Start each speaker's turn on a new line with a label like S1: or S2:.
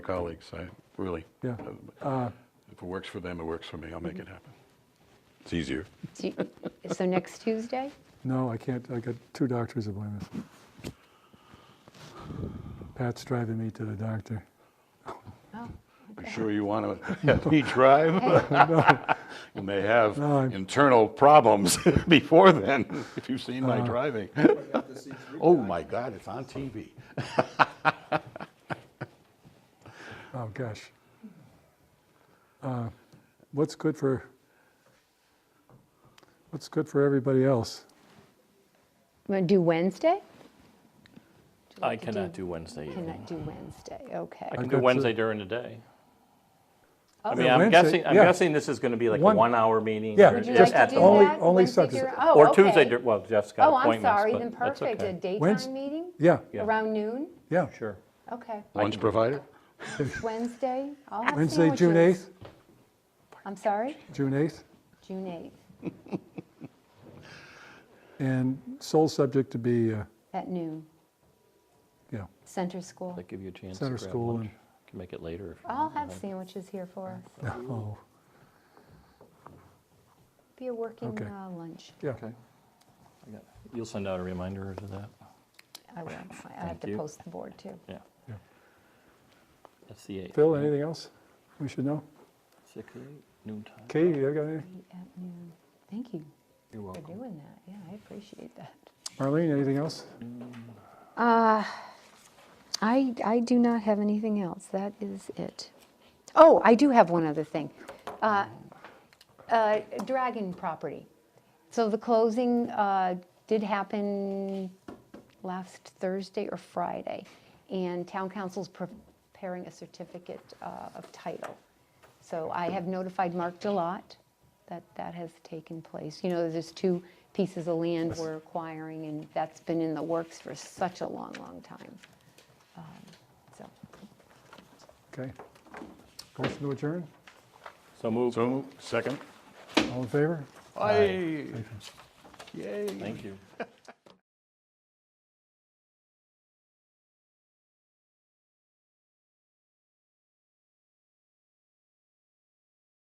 S1: colleagues, I really,
S2: Yeah.
S1: uh, if it works for them, it works for me, I'll make it happen. It's easier.
S3: Do you- So next Tuesday?
S2: No, I can't, I got two doctor's appointments. Pat's driving me to the doctor.
S3: Oh,
S1: I'm sure you want to have me drive. You may have
S2: No, I'm-
S1: internal problems before then, if you've seen
S2: Uh-huh.
S1: my driving. Oh, my God, it's on TV.
S2: Oh, gosh. Uh, What's good for, what's good for everybody else?
S3: Want to do Wednesday?
S4: I cannot do Wednesday evening.
S3: Cannot do Wednesday, okay.
S4: I can
S2: I've
S4: do
S2: got
S4: Wednesday
S2: to-
S4: during the day.
S3: Oh.
S4: I mean,
S2: Yeah,
S4: I'm
S2: Wednesday,
S4: guessing, I'm
S2: yeah.
S4: guessing this is going to be like a
S2: One-
S4: one-hour meeting.
S2: Yeah,
S4: or
S3: Would you
S2: just
S3: like
S4: just
S3: to
S4: at
S3: do
S4: the
S2: all- only-
S3: that?
S2: only
S3: Wednesday
S2: subs-
S3: during- oh,
S4: Or Tuesday,
S3: okay.
S4: dur- well, Jeff's got
S3: Oh, I'm
S4: appointments,
S3: sorry,
S4: but
S3: then
S4: that's
S3: perfect, a
S4: okay.
S2: Wednes-
S3: daytime meeting?
S2: Yeah,
S4: Yeah.
S3: Around noon?
S2: yeah.
S4: Sure.
S3: Okay,
S1: Lunch provided?
S3: Wednesday, I'll have sandwiches.
S2: Wednesday, June 8th,
S3: I'm sorry,
S2: June 8th,
S3: June 8th,
S2: and sole subject to be, uh,
S3: at noon,
S2: yeah,
S3: Center School.
S4: That give you a chance to
S2: Center
S4: grab
S2: school
S4: lunch.
S2: and-
S4: Can make it later. if you
S3: I'll
S4: want.
S3: have sandwiches here for us,
S2: oh,
S3: be a working
S2: Okay.
S3: uh, lunch.
S2: yeah.
S4: Okay. I got- You'll send out a reminder to that?
S3: I will, I- I have
S4: you.
S3: to post the board too.
S4: Yeah.
S2: Yeah.
S4: That's the 8th.
S2: Phil, anything else we should know?
S4: 6, 8, noon time.
S2: Katie, you got anything?
S3: Meet At noon, thank you
S4: You're
S3: for
S4: welcome.
S3: doing that, yeah, I appreciate that.
S2: Marlene, anything else?
S3: Uh, I, I do not have anything else. That is it. Oh, I do have one other thing. Uh, uh, Dragon property. So the closing uh, did happen last Thursday or Friday, and town council's preparing a certificate uh, of title. So I have notified Mark Delot that that has taken place. You know, there's two pieces of land we're acquiring, and that's been in the works for such a long, long time. Um, So,
S2: Okay. Motion to adjourn,
S4: So move.
S1: So, moved. second?
S2: all in favor?
S1: Aye. Yay.
S4: Thank you.